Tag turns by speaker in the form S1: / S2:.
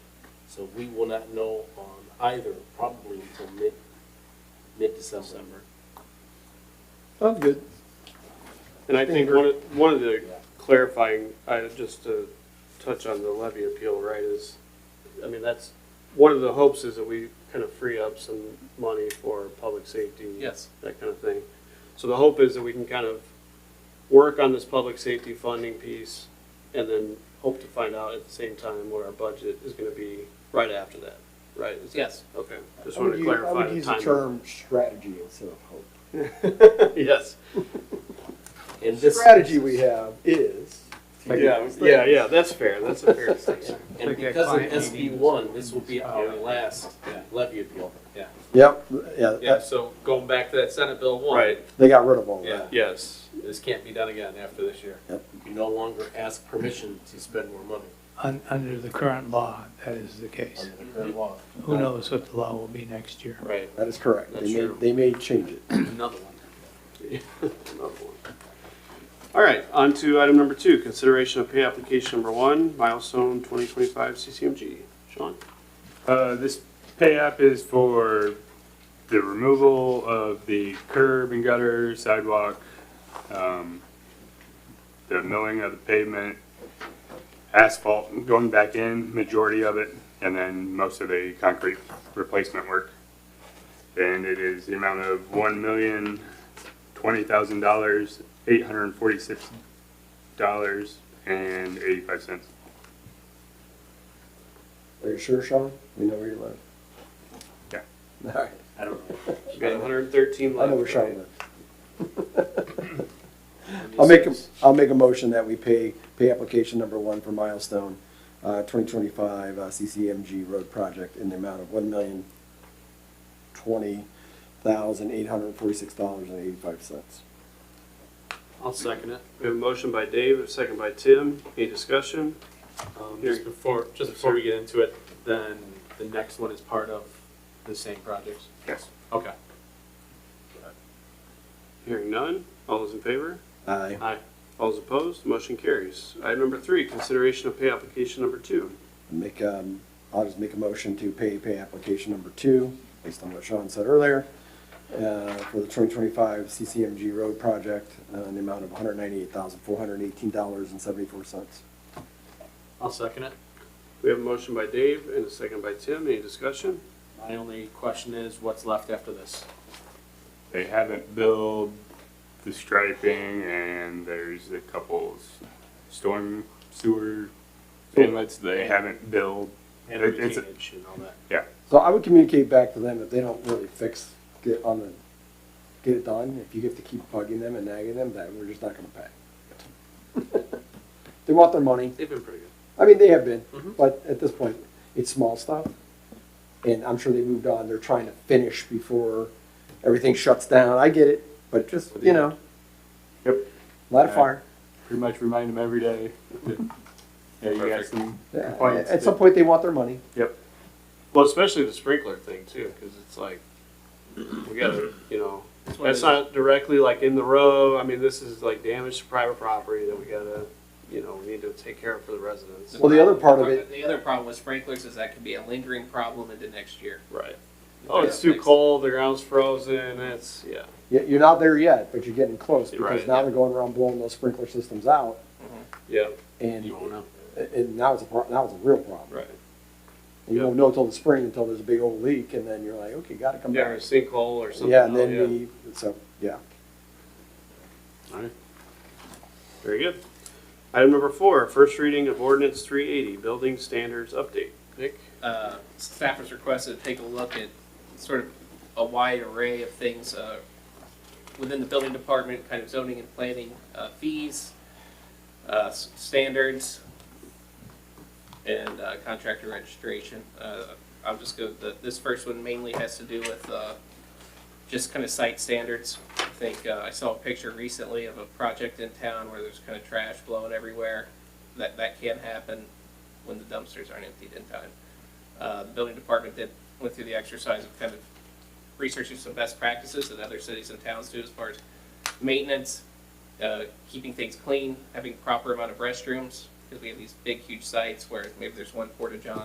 S1: So we will not know on either probably until mid, mid-December.
S2: Sounds Oh, good.
S3: And I think one of, one of the clarifying, I, just to touch on the levy appeal, right, is, I mean, that's, one of the hopes is that we kind of free up some money for public safety.
S4: Yes.
S3: That kind of thing. So the hope is that we can kind of work on this public safety funding piece and then hope to find out at the same time what our budget is gonna be right after that, right? Is that-
S4: Yes.
S3: Okay, just
S2: I
S3: wanted
S2: would
S3: to
S2: use, I
S3: clarify
S2: would
S3: the
S2: use the
S3: timing.
S2: term strategy instead of hope.
S3: Yes.
S1: And
S2: The
S1: this,
S2: strategy we have is.
S3: Yeah, yeah, yeah, that's fair, that's a fair statement.
S1: and because of SB one, this will be our last levy appeal.
S2: Yep, yeah,
S4: Yeah,
S2: that-
S4: so going back to that Senate Bill one.
S3: Right,
S2: they got rid of all
S4: Yeah.
S2: that.
S3: yes.
S4: This can't be done again after this year.
S1: You no longer ask permission to spend more money
S5: Un- Under the current law, that is the case.
S1: under the current law.
S5: Who knows what the law will be next year?
S4: Right.
S2: That is correct.
S3: That's
S2: They may,
S3: true.
S2: they may change it.
S4: Another one.
S3: Another one. All right, on to item number two, consideration of pay application number one, milestone twenty twenty-five CCMG. Sean?
S6: Uh, this pay app is for the removal of the curb and gutter sidewalk, um, the milling of the pavement, asphalt going back in, majority of it, and then most of the concrete replacement work. And it is the amount of one million, twenty thousand dollars, eight hundred and forty-six dollars and eighty-five cents.
S2: Are you sure, Sean? We know where you live.
S6: Yeah.
S2: All right,
S6: I don't know.
S3: You got hundred and thirteen
S2: I
S3: left.
S2: know where Sean
S3: right?
S2: lives. I'll make, a- I'll make a motion that we pay, pay application number one for milestone, uh, twenty twenty-five, uh, CCMG road project in the amount of one million, twenty thousand, eight hundred and forty-six dollars and eighty-five cents.
S3: I'll second it. We have a motion by Dave, a second by Tim. Any discussion?
S4: Um, just before, just before we get into it, then the next one is part of the same projects.
S6: Yes.
S4: Okay.
S3: Hearing none. All those in favor?
S2: Aye.
S3: All those opposed? Motion carries. Item number three, consideration of pay application number two.
S2: Make, um, I'll just make a motion to pay, pay application number two, based on what Sean said earlier, uh, for the twenty twenty-five CCMG road project, uh, in the amount of one hundred ninety-eight thousand, four hundred eighteen dollars and seventy-four cents.
S4: I'll second it.
S3: We have a motion by Dave and a second by Tim. Any discussion?
S4: My only question is what's left after this?
S6: They haven't billed the striping and there's a couple s- storm sewer inlets they haven't billed.
S4: And
S6: It- it's-
S4: retainage and all that.
S2: So I would communicate back to them if they don't really fix, get on the, get it done, if you have to keep bugging them and nagging them, that we're just not gonna pay. They want their money,
S3: They've been pretty good.
S2: I mean, they have been,
S3: Mhm.
S2: but at this point, it's small stuff. And I'm sure they moved on, they're trying to finish before everything shuts down, I get it, but just, you know,
S6: Yep,
S2: light a fire.
S6: pretty much remind them every day. that, Yeah, you got
S3: Perfect.
S6: some complaints.
S2: At some
S6: that-
S2: point, they want their money.
S6: Yep,
S3: Well, especially the sprinkler thing too, because it's like, we gotta, you know,
S4: one of
S3: that's not directly like in the road. I mean, this is like damage to private property that we gotta, you know, we need to take care of for the residents.
S2: Well, the other part of it-
S7: The other problem with sprinklers is that can be a lingering problem into next year.
S3: Right. Oh, it's too cold, the ground's frozen, it's, yeah.
S2: You- You're not there yet, but you're getting close, because
S3: Right,
S2: now
S3: yeah.
S2: they're going around blowing those sprinkler systems out,
S3: Yeah,
S2: and,
S4: You won't know.
S2: and now it's a, pro- now it's a real problem.
S3: right.
S2: And You
S3: Yeah.
S2: won't know till the spring, until there's a big old leak, and then you're like, okay, gotta come
S3: Yeah, or a
S2: back.
S3: sinkhole or something.
S2: Yeah, and
S3: oh,
S2: then we, so, yeah.
S3: Alright. Very good. Item number four, first reading of ordinance three eighty, building standards update. Nick?
S7: Uh, staff was requested to take a look at sort of a wide array of things, uh, within the building department, kind of zoning and planning, uh, fees, uh, s- standards, and, uh, contractor registration. Uh, I'll just go, the, this first one mainly has to do with, uh, just kind of site standards. I think, uh, I saw a picture recently of a project in town where there's kind of trash blowing everywhere. That, that can happen when the dumpsters aren't emptied in time. Uh, the building department did, went through the exercise of kind of researching some best practices that other cities and towns do as far as maintenance, uh, keeping things clean, having proper amount of restrooms, because we have these big, huge sites where maybe there's one porta john